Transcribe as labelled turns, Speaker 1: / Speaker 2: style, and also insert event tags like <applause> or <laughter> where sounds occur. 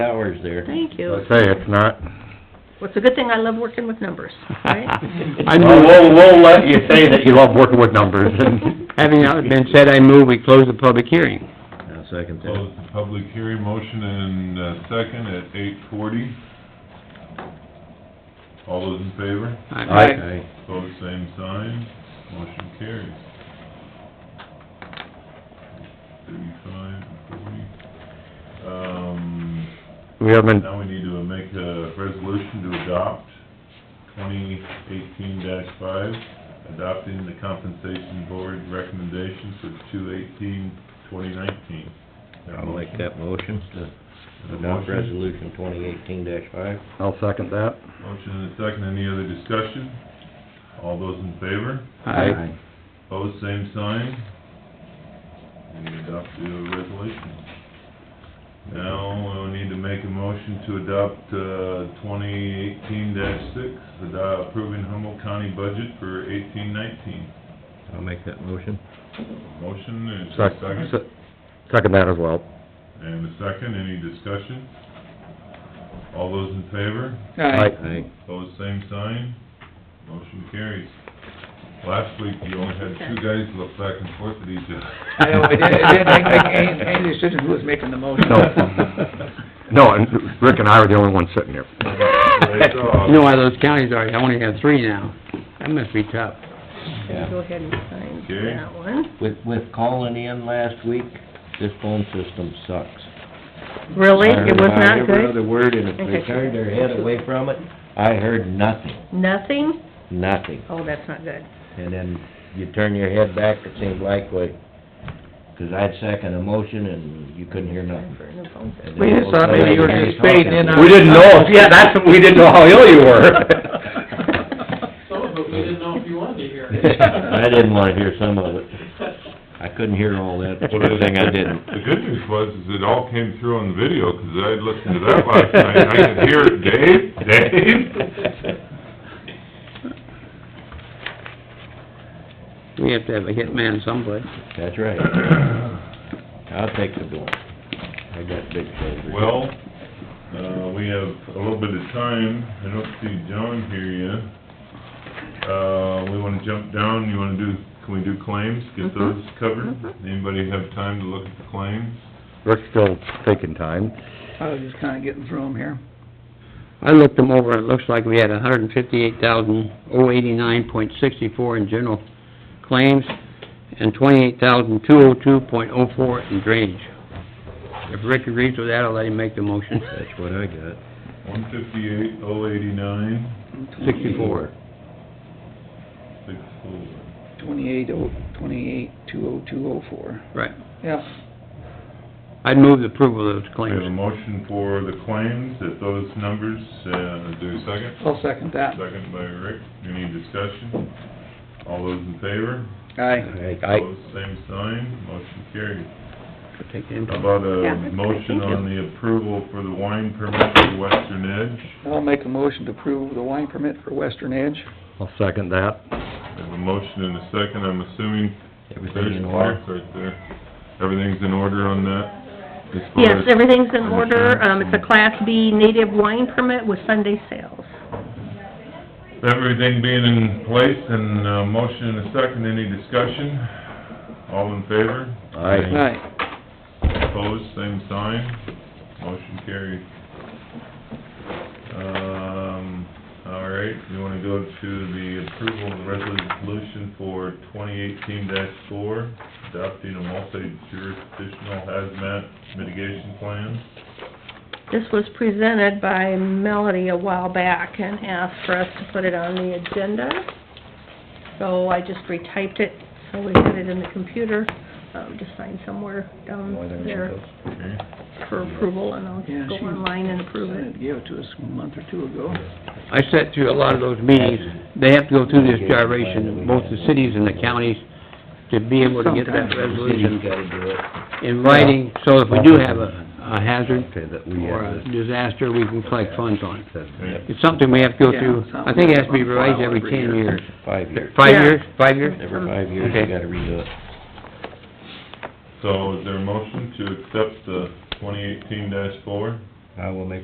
Speaker 1: hours there.
Speaker 2: Thank you.
Speaker 3: I say, it's not.
Speaker 2: Well, it's a good thing I love working with numbers,
Speaker 4: <laughs>
Speaker 3: <laughs>
Speaker 2: right?
Speaker 3: I move, we'll, we'll let you say that you love working with numbers and.
Speaker 4: <laughs> Having not been said, I move we close the public hearing.
Speaker 1: I'll second that.
Speaker 5: Close the public hearing, motion and uh, second at eight forty. All those in favor?
Speaker 1: Aye.
Speaker 5: Pose same sign, motion carries. Thirty-five, forty. Um,
Speaker 3: We haven't,
Speaker 5: now we need to make a resolution to adopt twenty eighteen five, adopting the compensation board recommendations for two eighteen, twenty nineteen.
Speaker 1: I'll make that motion to adopt
Speaker 5: Motion.
Speaker 1: resolution twenty eighteen five.
Speaker 3: I'll second that.
Speaker 5: Motion and a second, any other discussion? All those in favor?
Speaker 4: Aye.
Speaker 5: Pose same sign. And we adopt the resolution. Now, we need to make a motion to adopt, uh, twenty eighteen six, approving Humboldt County budget for eighteen nineteen.
Speaker 1: I'll make that motion.
Speaker 5: Motion and a
Speaker 3: Sec-
Speaker 5: second,
Speaker 3: se- Second that as well.
Speaker 5: and a second, any discussion? All those in favor?
Speaker 4: Aye.
Speaker 1: Aye.
Speaker 5: Pose same sign, motion carries. Last week, you only had two guys look back and forth at each other.
Speaker 6: I know, it did, it did make, make, and, and it shouldn't, who was making the motion?
Speaker 3: No, and Rick and I were the only ones sitting here.
Speaker 5: Right off.
Speaker 4: You know why those counties are, I only have three now. That must be tough.
Speaker 1: Yeah.
Speaker 2: Go ahead and sign
Speaker 5: Okay.
Speaker 2: that one.
Speaker 1: <laughs> With, with calling in last week, this phone system sucks.
Speaker 2: Really? It was
Speaker 1: I
Speaker 2: not
Speaker 1: heard Every
Speaker 2: good?
Speaker 1: other word, and if
Speaker 2: Okay.
Speaker 1: they turned their head away from it, I heard nothing,
Speaker 2: Nothing?
Speaker 1: nothing.
Speaker 2: Oh, that's not good.
Speaker 1: And then you turn your head back, it seemed likely, 'cause I'd second a motion and you couldn't hear nothing.
Speaker 2: For a new phone system.
Speaker 1: And then
Speaker 6: We just thought maybe you were just fading in on-
Speaker 3: We didn't know, yeah, that's, we didn't know how ill you were.
Speaker 7: Some of it, we didn't know if you wanted to hear.
Speaker 1: <laughs>
Speaker 6: <laughs>
Speaker 1: I didn't wanna hear some of it. I couldn't hear all
Speaker 6: <laughs>
Speaker 1: that,
Speaker 5: Well, the-
Speaker 1: good thing I didn't.
Speaker 5: The good news was, is it all came through on video, 'cause I had listened to that last night, and I could hear it, Dave, Dave.
Speaker 4: We have to have a hitman someplace.
Speaker 1: That's right. I'll take the blame. I got big shoulders.
Speaker 5: Well, uh, we have a little bit of time, I don't see John here yet. Uh, we wanna jump down, you wanna do, can we do claims, get those covered? Anybody have time to look at the claims?
Speaker 3: Rick's still taking time.
Speaker 6: I was just kinda getting through them here.
Speaker 4: I looked them over, and it looks like we had a hundred and fifty-eight thousand, oh eighty-nine point sixty-four in general claims, and twenty-eight thousand, two oh two point oh four in drainage. If Rick agrees with that, I'll let him make the motion.
Speaker 1: That's what I got.
Speaker 5: One fifty-eight, oh eighty-nine,
Speaker 4: Sixty-four.
Speaker 5: six four.
Speaker 6: Twenty-eight oh, twenty-eight, two oh, two oh four.
Speaker 4: Right.
Speaker 6: Yep,
Speaker 4: I'd move the approval of those
Speaker 5: We have a
Speaker 4: claims.
Speaker 5: motion for the claims at those numbers, uh, do a second.
Speaker 6: I'll second that.
Speaker 5: Second by Rick, any discussion? All those in favor?
Speaker 6: Aye.
Speaker 1: I,
Speaker 5: Opposed, same sign, motion carried.
Speaker 4: Take the input.
Speaker 5: How about
Speaker 2: Yeah,
Speaker 5: a
Speaker 2: that's
Speaker 5: motion
Speaker 2: good,
Speaker 5: on the approval for the wine permit for Western Edge?
Speaker 6: I'll make a motion to approve the wine permit for Western Edge.
Speaker 3: I'll second that.
Speaker 5: We have a motion and a second, I'm assuming
Speaker 1: everything
Speaker 5: there's
Speaker 1: in order.
Speaker 5: marks right there. Everything's in order on that? as far
Speaker 2: Yes,
Speaker 5: as-
Speaker 2: everything's in order. Um, it's a Class B native wine permit with Sunday sales.
Speaker 5: Everything being in place and, uh, motion and a second, any discussion? All in favor?
Speaker 1: Aye.
Speaker 6: Aye.
Speaker 5: Opposed, same sign, motion carried. Um, all right, you wanna go to the approval of the resolution for twenty eighteen four, adopting a multi-jurisdictional hazmat mitigation plan?
Speaker 2: This was presented by Melody a while back and asked for us to put it on the agenda. So I just retyped it, so we had it in the computer, um, just sign somewhere down there
Speaker 5: Okay,
Speaker 2: for approval, and I'll
Speaker 6: Yeah,
Speaker 2: just go
Speaker 6: she-
Speaker 2: online and approve it.
Speaker 6: Gave it to us a month or two ago.
Speaker 4: I sat through a lot of those meetings, they have to go through this gyration, both the cities and the counties, to be able to get that
Speaker 6: Sometimes.
Speaker 1: City's
Speaker 4: resolution
Speaker 1: gotta do it.
Speaker 4: in writing, so if we do have a, a hazard
Speaker 1: Okay, that we uh,
Speaker 4: or a
Speaker 1: have
Speaker 4: disaster, we can collect funds on it.
Speaker 5: okay.
Speaker 4: It's something we have to go through, I think it has to be revised every ten years.
Speaker 1: this five years.
Speaker 4: Five
Speaker 2: Yeah.
Speaker 4: years, five years?
Speaker 1: Every five years, you
Speaker 4: Okay.
Speaker 1: gotta redo it.
Speaker 5: So is there a motion to accept the twenty eighteen four?
Speaker 1: I will make